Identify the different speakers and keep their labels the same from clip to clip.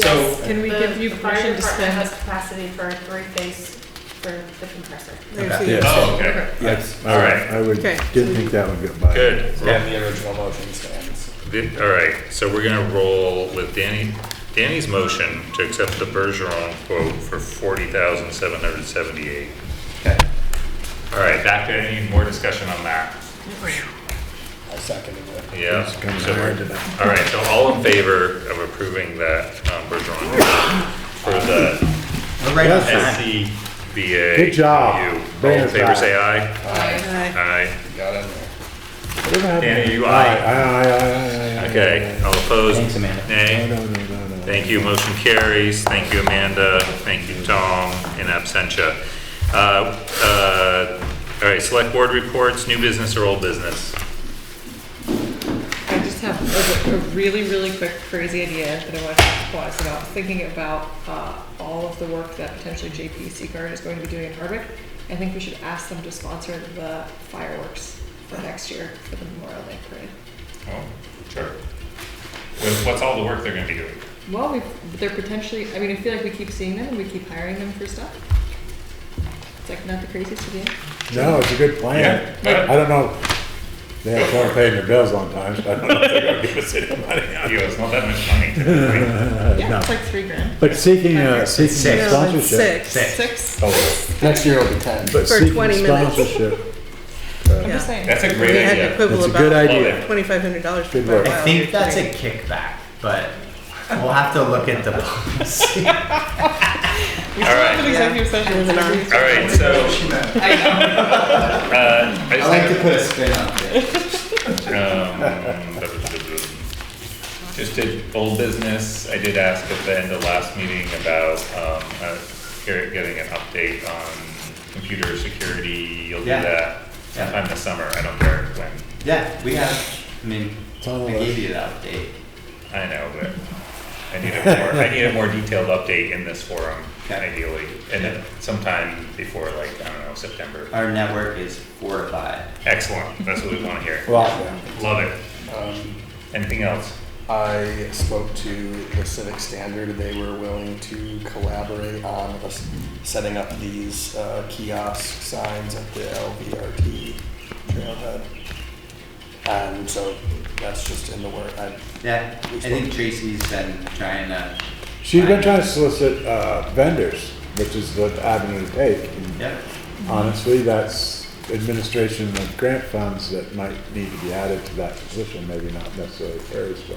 Speaker 1: So-
Speaker 2: Can we give you
Speaker 3: The fire
Speaker 2: permission to
Speaker 3: department
Speaker 2: spend?
Speaker 3: has capacity for three phase for the compressor.
Speaker 2: There's
Speaker 4: Yeah.
Speaker 2: the-
Speaker 1: Oh, okay,
Speaker 4: Yes.
Speaker 1: All right.
Speaker 4: I would,
Speaker 2: Okay.
Speaker 4: didn't think that would get by.
Speaker 1: good.
Speaker 5: Yeah, the original motion stands.
Speaker 1: The- All right, so we're gonna roll with Danny, Danny's motion to accept the Bergeron quote for forty thousand seven hundred seventy-eight.
Speaker 5: Okay.
Speaker 1: All right, back to any more discussion on that?
Speaker 5: I seconded it.
Speaker 1: Yeah.
Speaker 4: It's kinda
Speaker 1: so we're-
Speaker 4: hard to-
Speaker 1: All right, so all in favor of approving that um, Bergeron quote for the E
Speaker 5: We're right on time.
Speaker 1: SCBA.
Speaker 4: Good job.
Speaker 1: review. All
Speaker 4: Bring
Speaker 1: in
Speaker 4: us
Speaker 1: favor,
Speaker 4: back.
Speaker 1: say aye.
Speaker 2: Aye.
Speaker 1: Aye.
Speaker 5: You Got in there.
Speaker 4: Whatever happened-
Speaker 1: Danny, you
Speaker 4: Aye,
Speaker 1: aye?
Speaker 4: aye, aye, aye, aye, aye,
Speaker 1: Okay,
Speaker 4: aye.
Speaker 1: all opposed?
Speaker 5: Thanks, Amanda.
Speaker 1: Nay.
Speaker 4: No, no, no, no, no.
Speaker 1: Thank you, motion carries. Thank you, Amanda. Thank you, Tom, in absentia. Uh, uh, All right, select board reports, new business or old business?
Speaker 2: I just have a, a really, really quick crazy idea that I want to pause about, thinking about, uh, all of the work that potentially JP Seaguard is going to be doing in Hardwick. I think we should ask them to sponsor the fireworks for next year for the Memorial Day Parade.
Speaker 1: Oh, sure. What's all the work they're gonna be doing?
Speaker 2: Well, we, they're potentially, I mean, I feel like we keep seeing them and we keep hiring them for stuff. It's like not the craziest idea.
Speaker 4: No, it's a good plan.
Speaker 1: Yeah.
Speaker 4: I don't know, they have trouble paying their bills on time, so I don't know if they're gonna give us any money.
Speaker 1: Yeah, it's not that much money.
Speaker 2: Yeah,
Speaker 4: no.
Speaker 2: it's like three grand.
Speaker 4: But seeking
Speaker 2: a-
Speaker 4: a, seeking
Speaker 5: Six.
Speaker 4: sponsorship.
Speaker 5: Six.
Speaker 2: Six?
Speaker 4: Oh,
Speaker 5: Next year will be ten.
Speaker 4: But
Speaker 6: For
Speaker 4: seeking
Speaker 6: 20 minutes.
Speaker 4: sponsorship,
Speaker 2: I'm just saying.
Speaker 1: That's a
Speaker 6: We
Speaker 1: great
Speaker 6: had to
Speaker 1: idea.
Speaker 4: that's
Speaker 6: quibble
Speaker 4: a good
Speaker 6: about
Speaker 4: idea.
Speaker 6: twenty-five hundred dollars for
Speaker 4: Good work.
Speaker 6: quite a
Speaker 4: I
Speaker 6: while.
Speaker 7: I think that's a kickback, but we'll have to look at the policy.
Speaker 2: We still have an
Speaker 1: Alright.
Speaker 2: executive session.
Speaker 6: Moving on.
Speaker 1: All right, so,
Speaker 5: I
Speaker 1: uh, I just
Speaker 5: like to
Speaker 1: have,
Speaker 5: put a spin on it.
Speaker 1: um, just did old business. I did ask at the end of last meeting about, um, uh, here- getting an update on computer security. You'll do
Speaker 7: Yeah.
Speaker 1: that
Speaker 7: Yeah.
Speaker 1: sometime this summer. I don't care when.
Speaker 7: Yeah, we have, I mean,
Speaker 4: It's on the
Speaker 7: we
Speaker 4: list.
Speaker 7: gave you the update.
Speaker 1: I know, but I need a more, I need a more detailed update in this forum
Speaker 7: Yeah.
Speaker 1: ideally. And then sometime before like, I don't know, September.
Speaker 7: Our network is fortified.
Speaker 1: Excellent. That's what we want to hear.
Speaker 5: Well,
Speaker 1: Love it.
Speaker 5: um,
Speaker 1: Anything else?
Speaker 5: I spoke to the Civic Standard. They were willing to collaborate on us setting up these uh, kiosk signs at the LVRT trailhead. And so that's just in the work. I,
Speaker 7: Yeah, I think Tracy's been trying to,
Speaker 4: She's been trying to solicit, uh, vendors, which is the avenue to take. and
Speaker 7: yep,
Speaker 4: Honestly, that's administration of grant funds that might need to be added to that position, maybe not necessarily Terry's, but.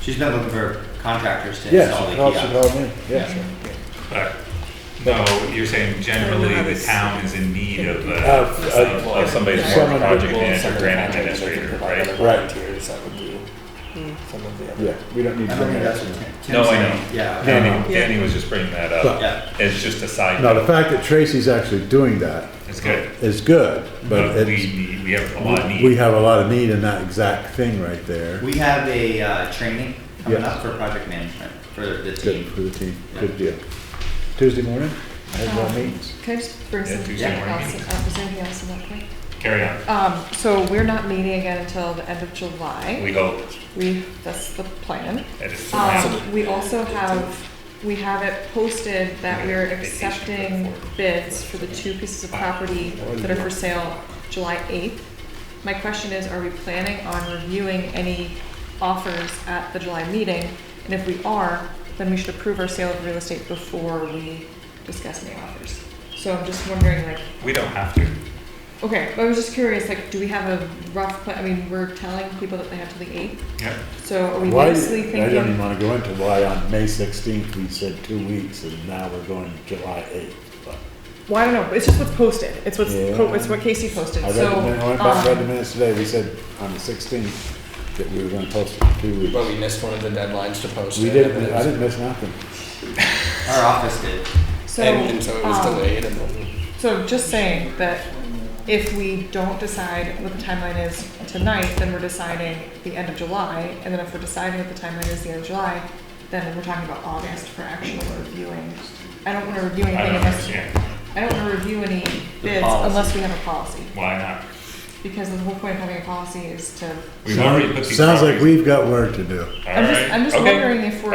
Speaker 7: she's been looking for contractors to
Speaker 4: Yeah,
Speaker 7: install
Speaker 4: she
Speaker 7: the
Speaker 4: called, she
Speaker 7: kiosks.
Speaker 4: called me, yeah.
Speaker 1: Uh, No, you're saying generally the town is in need of, uh,
Speaker 4: Of-
Speaker 1: some- of somebody who's more of a
Speaker 4: Someone-
Speaker 1: project
Speaker 5: Well,
Speaker 1: manager,
Speaker 5: some of the
Speaker 1: grant
Speaker 5: contractors, they could
Speaker 1: administrator,
Speaker 5: provide
Speaker 1: right?
Speaker 5: other
Speaker 4: Right.
Speaker 5: Volunteers that would do some of the other.
Speaker 4: Yeah, we don't need.
Speaker 7: I don't think that's
Speaker 4: to-
Speaker 7: what Tim- Tim's
Speaker 1: No, I
Speaker 7: saying.
Speaker 1: know.
Speaker 7: Yeah. okay.
Speaker 1: Danny, Danny was just bringing that up.
Speaker 7: Yeah.
Speaker 1: It's just a side
Speaker 4: No, the
Speaker 1: note.
Speaker 4: fact that Tracy's actually doing that
Speaker 1: It's good.
Speaker 4: is good, but
Speaker 1: But we
Speaker 4: it's,
Speaker 1: need, we have a lot of need.
Speaker 4: we have a lot of need in that exact thing right there.
Speaker 7: We have a, uh, training coming
Speaker 4: Yeah.
Speaker 7: up for project management for the
Speaker 4: Good
Speaker 7: team.
Speaker 4: for the team,
Speaker 7: Yeah.
Speaker 4: good deal. Tuesday morning, I have no meetings.
Speaker 2: Can I just bring
Speaker 1: Yeah,
Speaker 2: something
Speaker 1: Tuesday morning
Speaker 2: else,
Speaker 1: meeting.
Speaker 2: uh, was there anything else in that point?
Speaker 1: Carry on.
Speaker 2: Um, so we're not meeting again until the end of July.
Speaker 1: We hope
Speaker 2: We, that's the plan.
Speaker 1: that it's
Speaker 2: Um, we also have, we have it posted that we're accepting bids for the two pieces of property that are for sale July eighth. My question is, are we planning on reviewing any offers at the July meeting? And if we are, then we should approve our sale of real estate before we discuss any offers. So I'm just wondering, like,
Speaker 1: We don't have to.
Speaker 2: Okay, I was just curious, like, do we have a rough, pla- I mean, we're telling people that they have till the eighth,
Speaker 1: Yep.
Speaker 2: so are we
Speaker 4: Why, I
Speaker 2: basically
Speaker 4: don't even
Speaker 2: thinking?
Speaker 4: wanna go into why on May sixteenth, we said two weeks, and now we're going July eighth.
Speaker 2: Well, I don't know, it's just what's posted, it's what's, po-
Speaker 4: Yeah.
Speaker 2: it's what Casey posted,
Speaker 4: I read,
Speaker 2: so,
Speaker 4: the minute- I went back, read the
Speaker 2: um,
Speaker 4: minutes today, we said on the sixteenth that we were gonna post it for two
Speaker 5: But
Speaker 4: weeks.
Speaker 5: we missed one of the deadlines to post.
Speaker 4: We
Speaker 5: it,
Speaker 4: didn't,
Speaker 5: and it
Speaker 4: I
Speaker 5: was-
Speaker 4: didn't miss nothing.
Speaker 7: Our office did.
Speaker 2: um, so,
Speaker 5: And, and so it was
Speaker 2: um,
Speaker 5: delayed and then.
Speaker 2: So just saying that if we don't decide what the timeline is tonight, then we're deciding the end of July, and then if we're deciding what the timeline is the end of July, then we're talking about August for actual reviewing. I don't wanna review
Speaker 1: I
Speaker 2: anything
Speaker 1: don't
Speaker 2: unless,
Speaker 1: understand.
Speaker 2: I don't wanna review any bids
Speaker 7: policy.
Speaker 2: unless we have a policy.
Speaker 1: Why not?
Speaker 2: Because the whole point of having a policy is to,
Speaker 1: We've already put these.
Speaker 4: Sounds like
Speaker 1: properties-
Speaker 4: we've got work to do.
Speaker 1: All
Speaker 2: I'm just,
Speaker 1: right.
Speaker 2: I'm just
Speaker 1: Okay.
Speaker 2: wondering if we're